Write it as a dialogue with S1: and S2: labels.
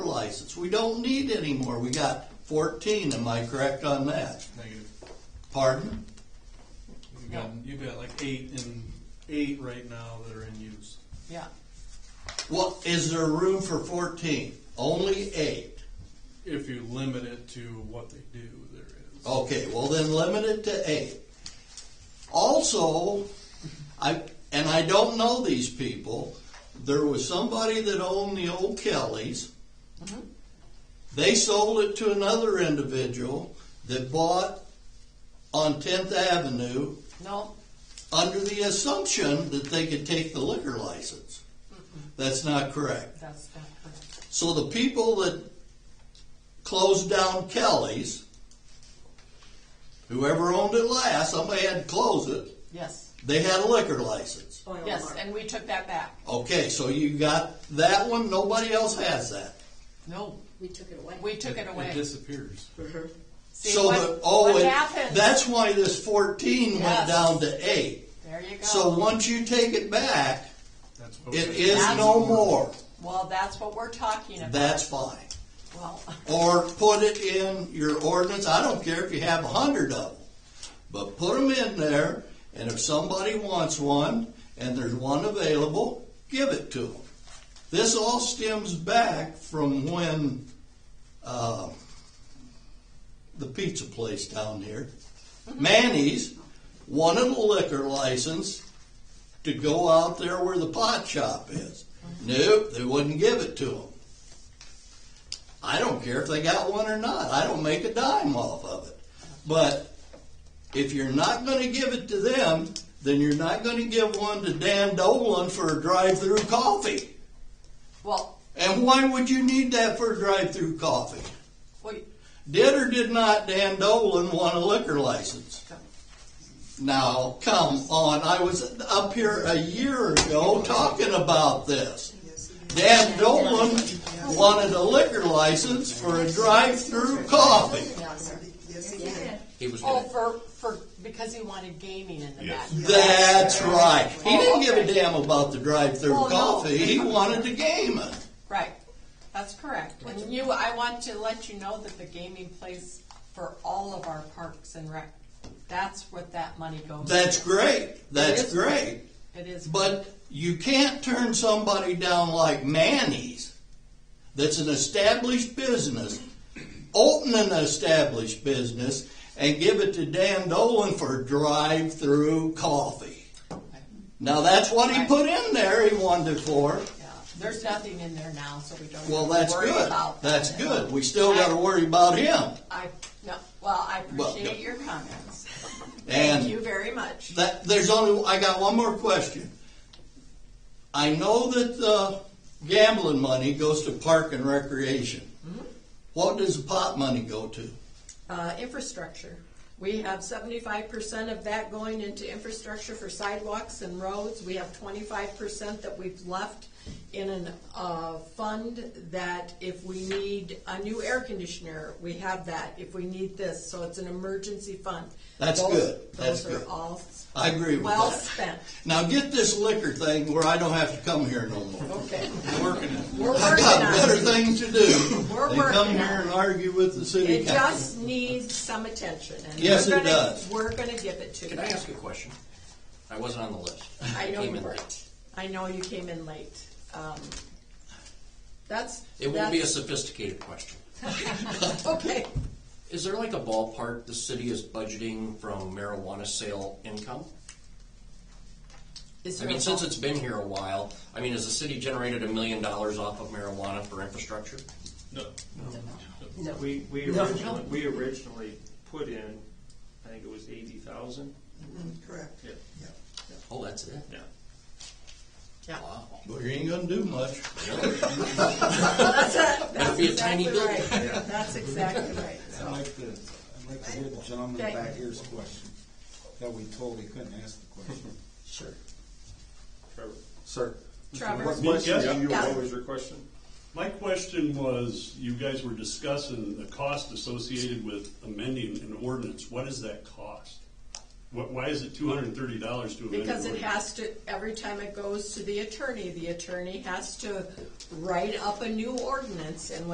S1: license. We don't need any more. We got fourteen, am I correct on that?
S2: Negative.
S1: Pardon?
S2: You've got, you've got like eight in, eight right now that are in use.
S3: Yeah,
S1: What, is there room for fourteen? Only eight?
S2: If you limit it to what they do, there is.
S1: Okay, well then limit it to eight. Also, I, and I don't know these people, there was somebody that owned the old Kelly's. They sold it to another individual that bought on Tenth Avenue
S3: no,
S1: under the assumption that they could take the liquor license. That's not correct.
S3: that's not correct.
S1: So the people that closed down Kelly's, whoever owned it last, somebody had to close it,
S3: Yes,
S1: they had a liquor license.
S4: Oh,
S5: Oil
S3: yes,
S5: oh, mark.
S3: and we took that back.
S1: Okay, so you got that one, nobody else has that.
S3: No,
S5: We took it away.
S3: we took it
S2: It
S3: away.
S2: disappears.
S3: See
S1: So
S3: what-
S1: the, oh,
S3: What
S1: and
S3: happened?
S1: that's why this fourteen
S3: Yes.
S1: went down to eight.
S3: There you go.
S1: So once you take it back,
S2: That's what
S1: it
S2: we-
S1: is no more,
S3: Well, that's what we're talking about.
S1: that's fine.
S3: Well,
S1: Or put it in your ordinance, I don't care if you have a hundred of them, but put them in there, and if somebody wants one, and there's one available, give it to them. This all stems back from when, uh, the pizza place down here, Manny's, wanted a liquor license to go out there where the pot shop is. Nope, they wouldn't give it to them. I don't care if they got one or not. I don't make a dime off of it. But if you're not going to give it to them, then you're not going to give one to Dan Dolan for a drive-through coffee.
S3: well,
S1: And why would you need that for a drive-through coffee?
S3: we,
S1: Did or did not Dan Dolan want a liquor license? Now, come on. I was up here a year ago talking about this. Dan Dolan wanted a liquor license for a drive-through coffee.
S4: He was
S3: oh,
S4: gonna,
S3: for, for, because he wanted gaming in the back.
S1: That's right. He
S3: Oh,
S1: didn't give a
S3: okay.
S1: damn about the drive-through
S3: Oh, no.
S1: coffee. He wanted the game.
S3: Right, that's correct. And you, I want to let you know that the gaming plays for all of our parks and rec. That's what that money goes to.
S1: That's great.
S3: It
S1: That's
S3: is.
S1: great.
S3: It is.
S1: But you can't turn somebody down like Manny's, that's an established business, open an established business, and give it to Dan Dolan for drive-through coffee. Now, that's what he
S3: Right.
S1: put in there, he wanted it for.
S3: Yeah, there's nothing in there now, so we don't
S1: Well,
S3: have to
S1: that's
S3: worry
S1: good.
S3: about that.
S1: That's good. We still gotta worry about him.
S3: I, no, well, I
S1: Well,
S3: appreciate
S1: no.
S3: your comments.
S1: And
S3: Thank you very much.
S1: That, there's only, I got one more question. I know that the gambling money goes to park and recreation.
S5: Mm-hmm.
S1: What does the pot money go to?
S5: Uh, infrastructure. We have seventy-five percent of that going into infrastructure for sidewalks and roads. We have twenty-five percent that we've left in an, uh, fund that if we need a new air conditioner, we have that. If we need this, so it's an emergency fund.
S1: That's
S5: Those-
S1: good. That's
S5: Those
S1: good.
S5: are all.
S1: I agree with
S5: Well
S1: that.
S5: spent.
S1: Now get this liquor thing where I don't have to come here no more.
S5: Okay.
S2: Working it.
S5: We're
S1: I
S5: working
S1: got
S5: on
S1: better
S5: it.
S1: things to do
S5: We're
S1: than come
S5: working
S1: here
S5: on
S1: and
S5: it.
S1: argue with the city
S5: It
S1: council.
S5: just needs some attention. and
S1: Yes,
S5: we're
S1: it
S5: gonna-
S1: does.
S5: We're gonna give it to you.
S4: can I ask a question? I wasn't on the list.
S5: I know
S4: came
S5: you
S4: in
S5: were.
S4: late.
S5: I know you came in late. Um, That's.
S4: It won't be a
S5: that's-
S4: sophisticated question.
S5: Okay,
S4: Is there like a ballpark the city is budgeting from marijuana sale income?
S5: Is
S4: I
S5: there
S4: mean,
S5: a
S4: since
S5: ball-
S4: it's been here a while, I mean, has the city generated a million dollars off of marijuana for infrastructure?
S2: No.
S5: no.
S6: We, we
S5: No,
S6: originally,
S5: no.
S6: we originally put in, I think it was eighty thousand.
S7: Correct.
S6: Yeah.
S4: Oh, that's it?
S6: Yeah.
S5: Yeah.
S4: Wow.
S1: But you ain't gonna do much.
S5: That's it. That's
S4: be a tiny
S5: exactly right.
S4: building.
S5: That's exactly right.
S7: I'd like to, I'd like to hear the gentleman
S5: Okay.
S7: back here's question, that we told he couldn't ask the question.
S4: Sure.
S6: Trevor.
S7: Sir.
S5: Trevor,
S8: Yes.
S6: You,
S5: Yeah.
S6: what was your question?
S8: My question was, you guys were discussing the cost associated with amending an ordinance. What is that cost? What, why is it two hundred and thirty dollars to amend an
S5: because
S8: ordinance?
S5: it has to, every time it goes to the attorney, the attorney has to write up a new ordinance, and when